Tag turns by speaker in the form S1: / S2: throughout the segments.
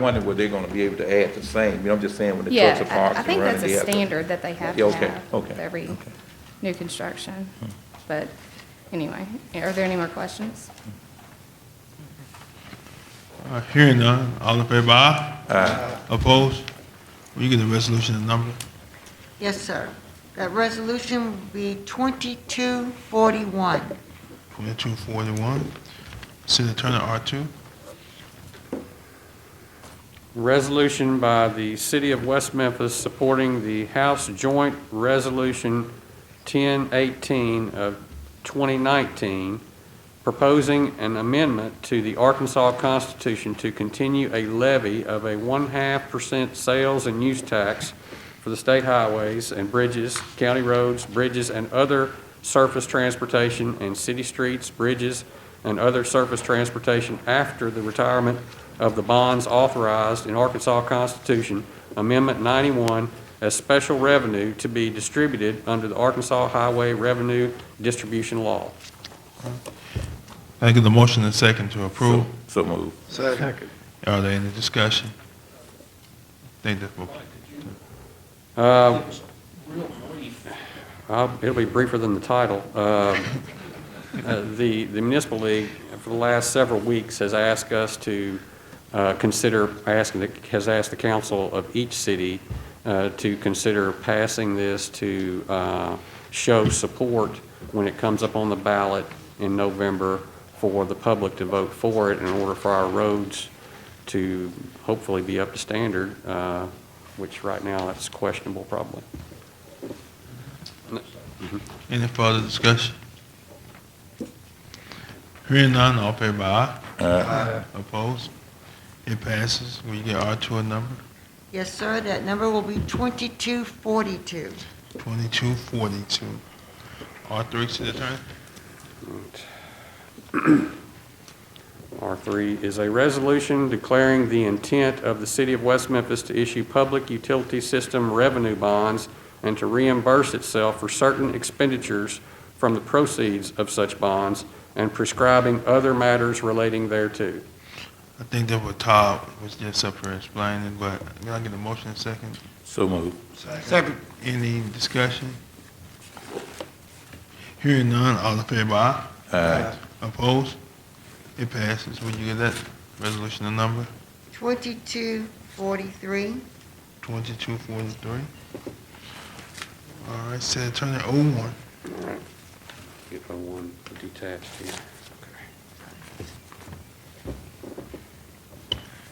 S1: Wondering were they gonna be able to add the same, you know, I'm just saying when the
S2: Yeah,
S1: trucks are
S2: I-
S1: parked.
S2: I
S1: and
S2: think
S1: running,
S2: that's a
S1: they have to-
S2: standard that they have
S1: Yeah,
S2: to
S1: okay,
S2: have
S1: okay,
S2: with every
S1: okay. Hmm.
S2: new construction. But anyway, are there any more questions?
S3: All right, Hearing none, all in favor, aye? Opposed? Will you give the resolution a number?
S4: Yes, sir. That resolution will be 2241.
S3: Twenty-two forty-one. City Attorney, R two.
S5: resolution by the City of West Memphis supporting the House Joint Resolution 1018 of 2019, proposing an amendment to the Arkansas Constitution to continue a levy of a one-half percent sales and use tax for the state highways and bridges, county roads, bridges, and other surface transportation, and city streets, bridges, and other surface transportation after the retirement of the bonds authorized in Arkansas Constitution Amendment 91 as special revenue to be distributed under the Arkansas Highway Revenue Distribution Law.
S3: I give the motion and second to approve.
S1: So move.
S3: Are there any discussion? Think that,
S5: Uh, I'll- It'll be briefer than the title. Uh, uh, The the Municipal League, for the last several weeks, has asked us to uh, consider, asking, the- has asked the council of each city uh, to consider passing this to uh, show support when it comes up on the ballot in November for the public to vote for it in order for our roads to hopefully be up to standard, uh, which right now that's questionable probably.
S3: any further discussion? Hearing none, all in favor, aye? Aye. Opposed? It passes. Will you give R two a number?
S4: Yes, sir. That number will be 2242.
S3: Twenty-two forty-two. R three, City Attorney.
S5: R3 is a resolution declaring the intent of the City of West Memphis to issue public utility system revenue bonds and to reimburse itself for certain expenditures from the proceeds of such bonds and prescribing other matters relating thereto.
S3: I think that what Todd was just up here explaining, but can I get a motion and second?
S1: So move.
S3: Any discussion? Hearing none, all in favor, aye?
S1: Aye.
S3: Opposed? It passes. Would you give that resolution a number?
S4: 2243.
S3: Twenty-two forty-three. All right, City Attorney O1.
S5: Get the one detached here.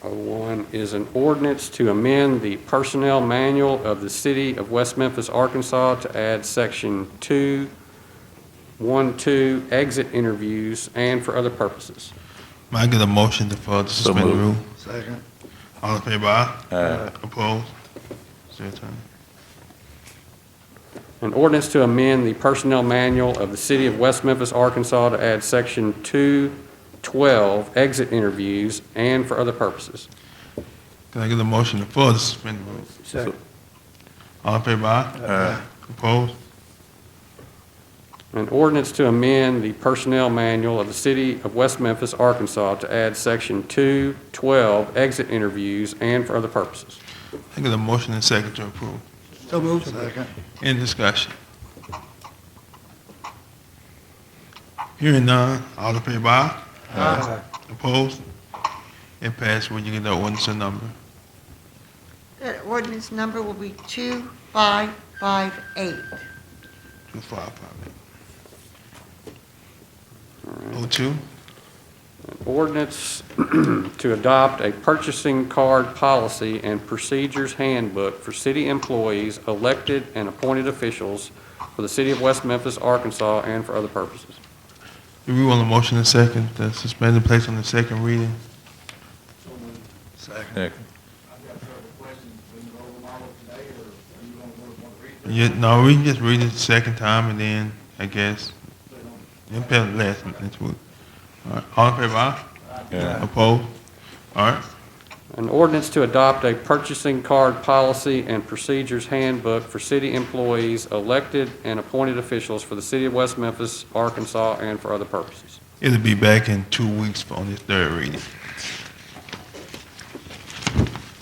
S5: Oh, one is an ordinance to amend the Personnel Manual of the City of West Memphis, Arkansas to add Section 2, 1, 2, exit interviews and for other purposes.
S3: May I get a motion to further
S1: So
S3: suspend the rule?
S1: moved.
S3: Second. All in favor, aye?
S1: Aye.
S3: Opposed? City Attorney.
S5: An ordinance to amend the Personnel Manual of the City of West Memphis, Arkansas to add Section 212, exit interviews and for other purposes.
S3: Can I get a motion to further suspend the rule?
S1: Second.
S3: All in favor, aye? Opposed?
S5: An ordinance to amend the personnel manual of the city of West Memphis, Arkansas to add section 212, exit interviews and for other purposes.
S3: I get a motion and second to approve.
S6: So moved. Second.
S3: Any discussion? Hearing none, all in favor, aye?
S6: Aye.
S3: Opposed? It passed. Will you give the ordinance a number?
S4: That ordinance number will be 2558.
S3: Two five five eight. O two?
S5: An ordinance to adopt a purchasing card policy and procedures handbook for city employees, elected and appointed officials for the city of West Memphis, Arkansas and for other purposes.
S3: Do we want a motion and second to suspend and place on the second reading?
S1: Second.
S3: Yeah, no, we can just read it the second time and then, I guess, it passed last, next week. All right, all in favor, aye?
S1: Aye.
S3: Opposed? All right.
S5: An ordinance to adopt a purchasing card policy and procedures handbook for city employees, elected and appointed officials for the city of West Memphis, Arkansas, and for other purposes.
S3: It'll be back in two weeks for- on this third reading.